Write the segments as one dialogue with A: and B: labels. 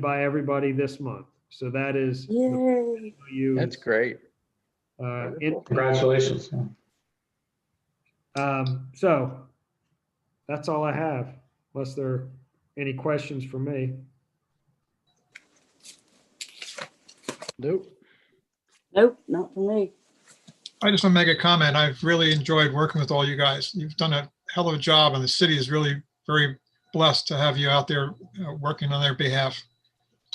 A: by everybody this month. So that is the
B: Yay.
A: you.
C: That's great.
A: uh,
C: wonderful.
A: in-
D: Congratulations.
A: um, So that's all I have, unless there are any questions for me.
C: Nope.
B: Nope, not for me.
E: I just want to make a comment. I've really enjoyed working with all you guys. You've done a hell of a job and the city is really very blessed to have you out there uh, working on their behalf.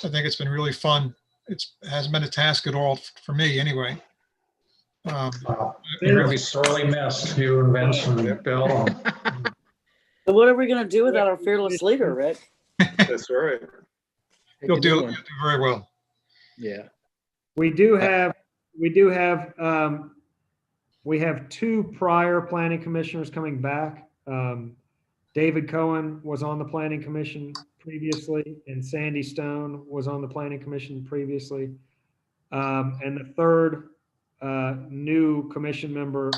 E: I think it's been really fun. It's, hasn't been a task at all for me anyway. Um,
D: Wow. You're going to be sorely missed, you and Vince and Bill.
B: So what are we gonna do without our fearless leader, Rick?
F: That's right.
C: Pick
E: You'll
C: a
E: do,
C: new
E: you'll
C: one.
E: do very well.
C: Yeah.
A: We do have, we do have, um, we have two prior planning commissioners coming back. Um, David Cohen was on the planning commission previously and Sandy Stone was on the planning commission previously. Um, and the third, uh, new commission member,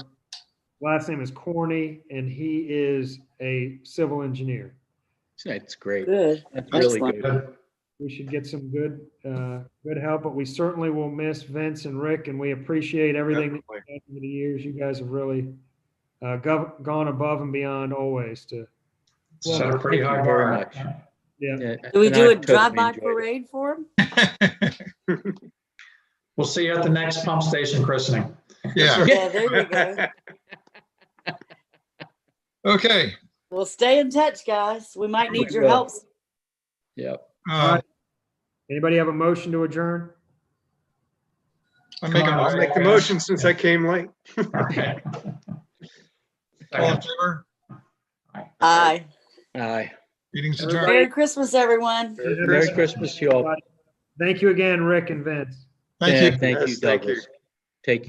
A: last name is Corney and he is a civil engineer.
C: That's great.
B: Good.
C: That's really
B: Excellent.
C: good.
A: we should get some good, uh, good help, but we certainly will miss Vince and Rick, and we appreciate everything that
F: Definitely.
A: you've done over the years. You guys have really uh, gov- gone above and beyond always to,
D: Set a pretty
C: Thank you
D: high
C: very
D: bar.
C: much.
A: yeah.
C: Yeah,
B: Do we
C: and
B: do
C: I
B: a
C: totally
B: drive-by
C: enjoyed it.
B: parade for him?
D: We'll see you at the next pump station christening.
E: Yeah.
B: Yeah, there you go.
E: Okay.
B: Well, stay in touch, guys. We might need your
C: will.
B: help.
C: Yep.
E: Uh,
A: Anybody have a motion to adjourn?
E: I make
F: I'll
E: a
F: make the motion since I came late.
D: Okay.
E: all in favor.
B: Aye.
C: Aye.
E: Meeting's
A: Everybody-
E: adjourned.
B: Merry Christmas, everyone.
C: Merry Christmas to you all.
A: Thank you again, Rick and Vince.
E: Thank you.
C: Thank you,
F: Yes, thank you.
C: Douglas. Take care.